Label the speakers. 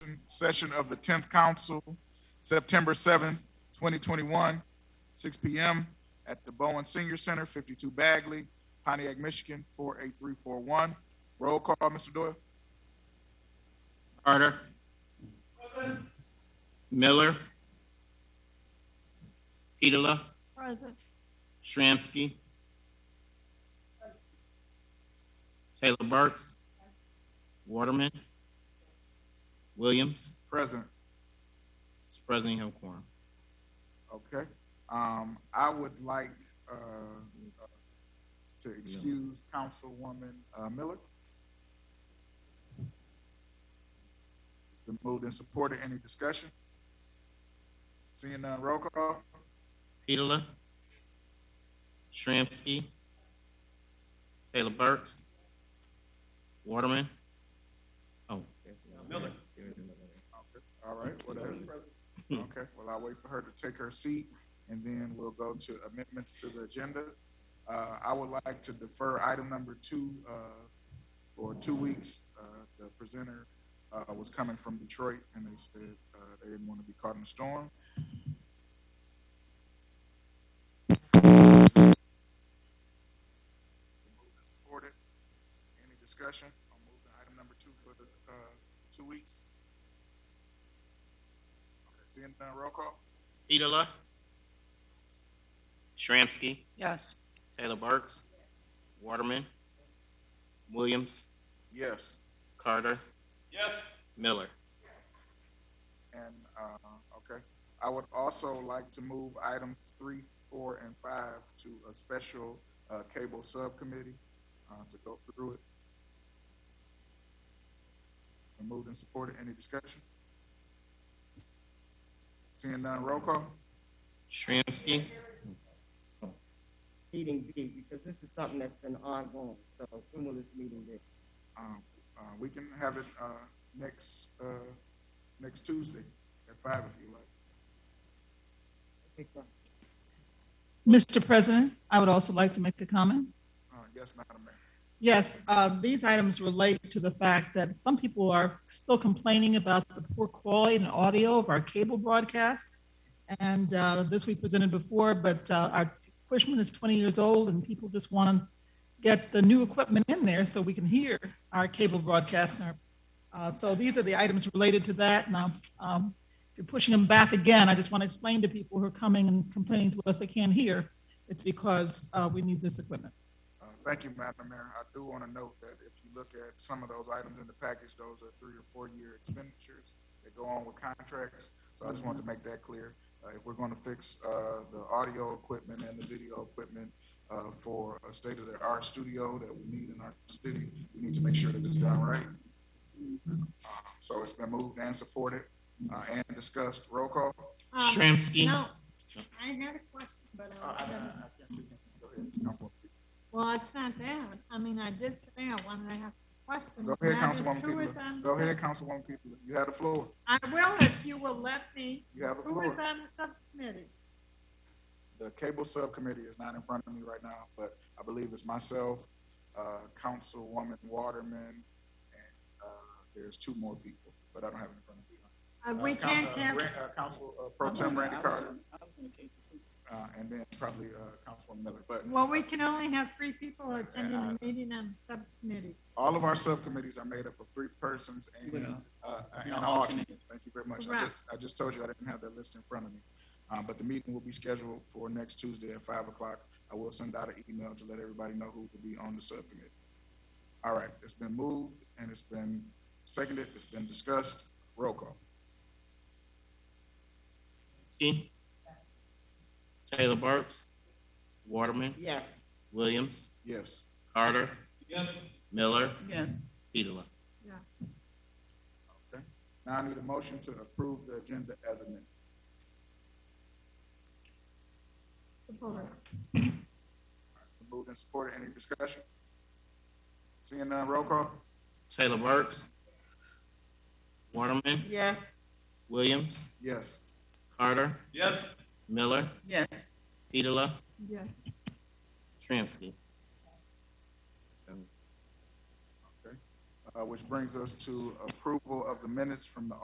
Speaker 1: session of the tenth council, September seventh, twenty twenty-one, six P M. at the Bowen Senior Center, fifty-two Bagley, Pontiac, Michigan, four eight three four one. Roll call, Mr. Doyle?
Speaker 2: Carter. Miller. Petola.
Speaker 3: Present.
Speaker 2: Shramsky. Taylor Burks. Waterman. Williams.
Speaker 1: Present.
Speaker 2: It's President Hill Quorum.
Speaker 1: Okay, um, I would like, uh, uh, to excuse Councilwoman, uh, Miller. It's been moved and supported. Any discussion? Seeing none, roll call.
Speaker 2: Petola. Shramsky. Taylor Burks. Waterman. Oh. Miller.
Speaker 1: Okay, All right, whatever. Okay, well, I'll wait for her to take her seat, and then we'll go to amendments to the agenda. Uh, I would like to defer item number two, uh, for two weeks. Uh, the presenter, uh, was coming from Detroit, and they said, uh, they didn't want to be caught in a storm. Supported. Any discussion on moving item number two for the, uh, two weeks? Okay, Seeing none, roll call?
Speaker 2: Petola. Shramsky.
Speaker 3: Yes.
Speaker 2: Taylor Burks. Waterman. Williams.
Speaker 1: Yes.
Speaker 2: Carter. Yes. Miller.
Speaker 1: And, uh, okay, I would also like to move items three, four, and five to a special, uh, cable subcommittee, uh, to go through it. It's been Moved and supported, any discussion? Seeing none, roll call?
Speaker 2: Shramsky.
Speaker 4: meeting be, because this is something that's been ongoing, so when will this meeting be?
Speaker 1: Um, uh, we can have it, uh, next, uh, next Tuesday at five if you like.
Speaker 4: Okay, so,
Speaker 5: Mr. President, I would also like to make a comment.
Speaker 1: Uh, yes, Madam Mayor.
Speaker 5: Yes, uh, these items relate to the fact that some people are still complaining about the poor quality and audio of our cable broadcast. And uh, this we presented before, but uh, our Cushman is 20 years old and people just want to get the new equipment in there so we can hear our cable broadcast. and our- uh, So these are the items related to that. Now, um, if you're pushing them back again, I just want to explain to people who are coming and complaining to us they can't hear, it's because uh, we need this equipment.
Speaker 1: Uh, Thank you, Madam Mayor. I do want to note that if you look at some of those items in the package, those are three or four-year expenditures that go on with contracts. So I just wanted to make that clear. Uh, If we're going to fix uh, the audio equipment and the video equipment uh, for a state-of-the-art studio that we need in our city, we need to make sure that it's done right. Uh, So it's been moved and supported uh, and discussed. Roll call.
Speaker 6: Um,
Speaker 2: Shramsky.
Speaker 6: No, I had a question, but, uh, I don't-
Speaker 1: Go ahead, Councilwoman.
Speaker 6: well, it's not that. I mean, I did say I wanted to ask a question.
Speaker 1: Go ahead,
Speaker 6: Now there's
Speaker 1: Councilwoman
Speaker 6: two is
Speaker 1: Peoples.
Speaker 6: on the
Speaker 1: Go ahead,
Speaker 6: sub-
Speaker 1: Councilwoman Peoples. You have the floor.
Speaker 6: I will if you will let me.
Speaker 1: You have the
Speaker 6: Who
Speaker 1: floor.
Speaker 6: is on the subcommittee?
Speaker 1: The cable subcommittee is not in front of me right now, but I believe it's myself, uh, Councilwoman Waterman, and, uh, there's two more people, but I don't have it in front of me.
Speaker 6: Uh, we
Speaker 1: Uh, Coun-
Speaker 6: can't
Speaker 1: uh,
Speaker 6: have,
Speaker 1: Ran- uh, Council, uh, Pro Tem Randy Carter, uh, and then probably, uh, Councilwoman Miller, but
Speaker 6: well, we can only have three people attending
Speaker 1: I-
Speaker 6: the meeting on the subcommittee.
Speaker 1: all of our subcommittees are made up of three persons and, uh, and an alternate. Thank you very much. I just, I just told you I didn't have that list in front of me. Uh, but the meeting will be scheduled for next Tuesday at five o'clock. I will send out an email to let everybody know who will be on the subcommittee. All right, it's been moved and it's been seconded, it's been discussed. Roll call.
Speaker 2: Shramsky. Taylor Burks. Waterman.
Speaker 4: Yes,
Speaker 2: Williams.
Speaker 1: Yes.
Speaker 2: Carter. Miller.
Speaker 5: Yes.
Speaker 2: Petola.
Speaker 1: Okay. Now I need a motion to approve the agenda as amended.
Speaker 6: Support.
Speaker 1: It's been Moved and supported. Any discussion? Seeing none, roll call?
Speaker 2: Taylor Burks. Waterman.
Speaker 4: yes,
Speaker 2: Williams.
Speaker 1: Yes.
Speaker 2: Carter. Yes. Miller.
Speaker 5: Yes.
Speaker 2: Petola.
Speaker 6: Yes.
Speaker 2: Shramsky.
Speaker 1: Uh, which brings us to approval of the minutes from the